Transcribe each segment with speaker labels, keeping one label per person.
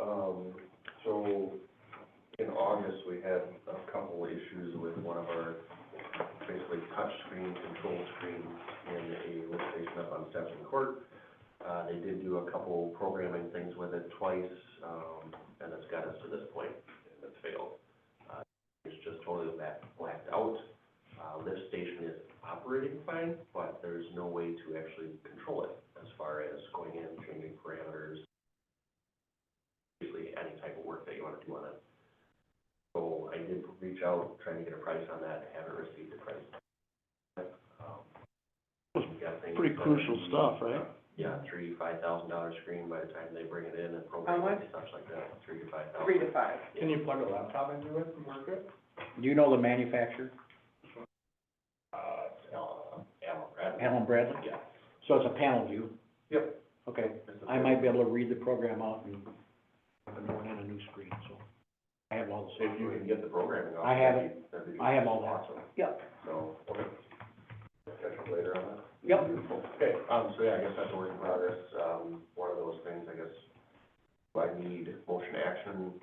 Speaker 1: Um, August, we had a couple issues with one of our basically touchscreen, control screen in a lift station up on Stetson Court. Uh, they did do a couple programming things with it twice, um, and it's got us to this point, and it's failed. Uh, It's just totally black, blacked out. Uh, lift station is operating fine, but there's no way to actually control it as far as going in, changing parameters, basically any type of work that you wanna do on it. So I did reach out, trying to get a price on that, haven't received a price. Um, I'm guessing-
Speaker 2: Pretty crucial stuff, right?
Speaker 1: Yeah, three, five thousand dollar screen by the time they bring it in and
Speaker 3: How
Speaker 1: program it
Speaker 3: much?
Speaker 1: and stuff like that, three to five thousand.
Speaker 3: three to five.
Speaker 4: Can you plug a laptop into it and work it?
Speaker 5: Do you know the manufacturer,
Speaker 4: Uh, it's Allen, Allen Bradley.
Speaker 5: Allen Bradley?
Speaker 4: Yeah.
Speaker 5: So it's a panel view?
Speaker 1: Yep.
Speaker 5: Okay, I might be able to read the program out and have it run on a new screen, so I have all the
Speaker 1: If you
Speaker 5: software.
Speaker 1: can get the programming off.
Speaker 5: I have it.
Speaker 1: that'd be- that'd be
Speaker 5: I have all that.
Speaker 1: Awesome,
Speaker 3: Yep.
Speaker 1: so, okay. Catch up later on that.
Speaker 5: Yep.
Speaker 1: Okay, um, so yeah, I guess that's a work in progress, um, one of those things, I guess, do I need motion action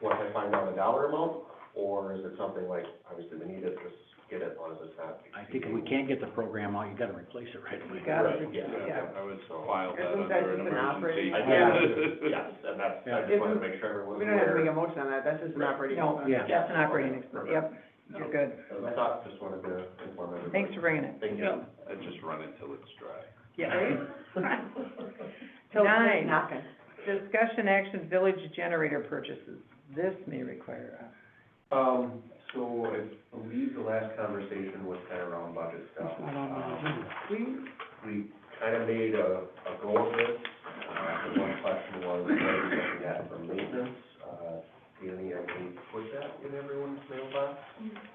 Speaker 1: once I find out the dollar amount, or is it something like, obviously we need it, just get it, as long as it's not.
Speaker 5: I think if we can't get the program out, you gotta replace it right away.
Speaker 3: You gotta
Speaker 1: Right,
Speaker 3: re-
Speaker 1: yeah,
Speaker 3: yeah.
Speaker 4: I would file that
Speaker 3: Isn't that
Speaker 4: under an
Speaker 3: just an
Speaker 4: emergency.
Speaker 3: operating-
Speaker 1: I
Speaker 3: Yeah.
Speaker 1: guess, yes, and that's, I just
Speaker 3: If
Speaker 1: wanted to
Speaker 3: we-
Speaker 1: make sure everyone's
Speaker 3: We don't have to make
Speaker 1: aware.
Speaker 3: a motion on that, that's just an
Speaker 1: Right.
Speaker 3: operating
Speaker 5: No,
Speaker 3: expense.
Speaker 5: yeah.
Speaker 3: That's an operating expense, yep, you're good.
Speaker 1: I thought, just wanted to inform everybody.
Speaker 3: Thanks for bringing it.
Speaker 1: Thank you.
Speaker 3: Yep.
Speaker 4: I just run it till it's dry.
Speaker 3: Yeah.
Speaker 6: Till it's
Speaker 3: Nine.
Speaker 6: knocking.
Speaker 3: Discussion action, village generator purchases. This may require a
Speaker 1: Um, so I believe the last conversation was kind of around budget stuff.
Speaker 5: It's not on the
Speaker 1: Um,
Speaker 5: agenda.
Speaker 1: we kind of made a, a go of it. Uh, the one question was, what are we looking at for maintenance? Uh, Danny, I think, put that in everyone's mailbox.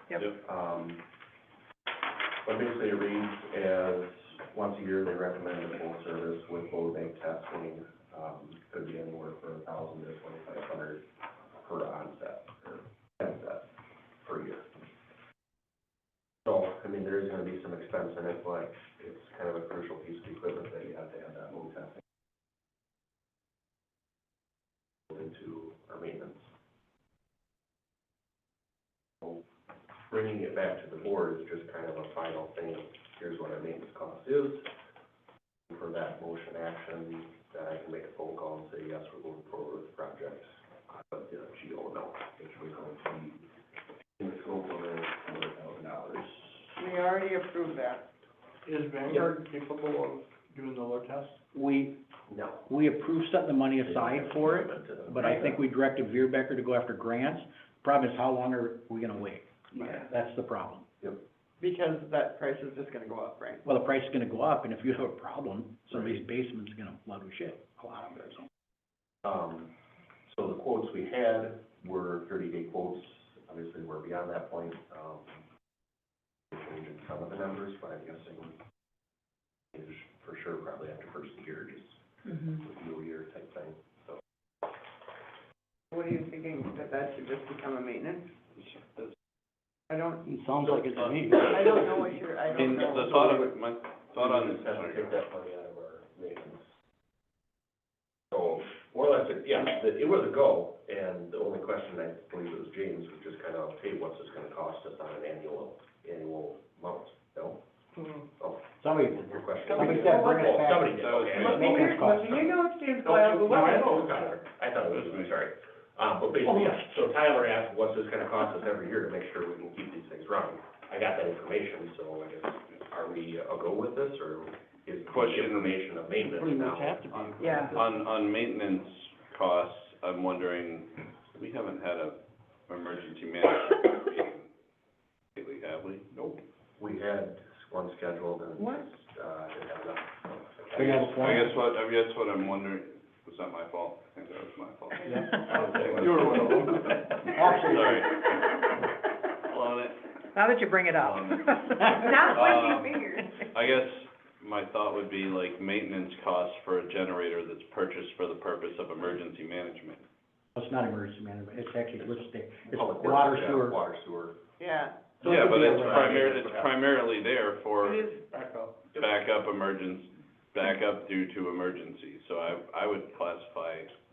Speaker 3: Yep.
Speaker 1: Um, but basically it reads as, once a year, they recommend a full service with low bank testing. Um, could be anywhere from a thousand to twenty-five hundred per onset, or headset per year. So, I mean, there is gonna be some expense in it, but it's kind of a crucial piece of equipment that you have to have that home testing. Into our maintenance. So Bringing it back to the board is just kind of a final thing, here's what our maintenance cost is. For that motion action, that I can make a phone call and say, yes, we're going forward with the project, Uh, but the GO no, which we're going to be in the scope of a hundred thousand dollars.
Speaker 3: We already approved that.
Speaker 4: Is Vanguard capable of doing the load test?
Speaker 5: We,
Speaker 1: No.
Speaker 5: we approved setting the money aside for it, but I think we directed Veerbecker to go after grants. Problem is, how long are we gonna wait?
Speaker 3: Yeah.
Speaker 5: That's the problem.
Speaker 3: Because that price is just gonna go up, right?
Speaker 5: Well, the price is gonna go up, and if you have a problem, somebody's basement's gonna flood with shit, a lot of it, so.
Speaker 1: Um, so the quotes we had were thirty-day quotes, obviously we're beyond that point, um, changing some of the numbers, but I'm guessing is for sure probably after first of the year, just
Speaker 3: Mm-hmm.
Speaker 1: new year type thing.
Speaker 3: What are you thinking, that that should just become a maintenance? I don't,
Speaker 5: It sounds like it's to me.
Speaker 3: I don't know what you're, I don't
Speaker 4: And
Speaker 3: know.
Speaker 4: the thought of it, my thought on this,
Speaker 1: We just have to take that money out of our maintenance. So, more or less, it- yeah, the- it was a go, and the only question, I believe it was James, was just kind of, hey, what's this gonna cost us on an annual, annual amount, no?
Speaker 3: Hmm.
Speaker 5: Somebody did
Speaker 1: Your
Speaker 5: that.
Speaker 1: question.
Speaker 5: Somebody said, bring it back.
Speaker 1: Somebody did, okay.
Speaker 4: That was
Speaker 3: Maybe
Speaker 5: Maintenance cost.
Speaker 3: you know it's James
Speaker 1: No,
Speaker 3: Coyle,
Speaker 1: no,
Speaker 3: but
Speaker 1: no,
Speaker 3: what?
Speaker 1: I know, Tyler, I thought it was me, sorry. Um, but basically,
Speaker 5: Oh,
Speaker 1: yeah, so Tyler asked, what's this gonna cost us every year to make sure we can keep these things running? I got that information, so I guess, are we a go with this, or is the
Speaker 4: Question.
Speaker 1: information of maintenance
Speaker 5: Pretty
Speaker 1: now?
Speaker 5: much have to be.
Speaker 3: Yeah.
Speaker 4: on, on maintenance costs, I'm wondering, we haven't had a emergency management meeting lately, have we? Nope.
Speaker 1: We had one scheduled and,
Speaker 3: What?
Speaker 1: uh, didn't have enough.
Speaker 5: Do you have a
Speaker 4: I
Speaker 5: plan?
Speaker 4: guess what, I guess what I'm wondering, was that my fault? I think that was my fault.
Speaker 5: Yeah.
Speaker 4: You were one of them.
Speaker 5: Actually,
Speaker 4: Sorry. Blown it.
Speaker 3: Now that you bring it up.
Speaker 4: Um,
Speaker 3: Not
Speaker 4: um,
Speaker 3: what you figured.
Speaker 4: I guess my thought would be like maintenance costs for a generator that's purchased for the purpose of emergency management.
Speaker 5: It's not emergency management, it's actually, let's stay, it's
Speaker 1: Public works,
Speaker 5: water
Speaker 1: yeah,
Speaker 5: sewer.
Speaker 1: Water sewer.
Speaker 3: Yeah,
Speaker 5: So it
Speaker 4: Yeah,
Speaker 5: could
Speaker 4: but
Speaker 5: be a
Speaker 4: it's
Speaker 5: way.
Speaker 4: primarily, it's primarily there
Speaker 3: it
Speaker 4: for
Speaker 3: is.
Speaker 4: backup emergence, backup due to emergency. So I, I would classify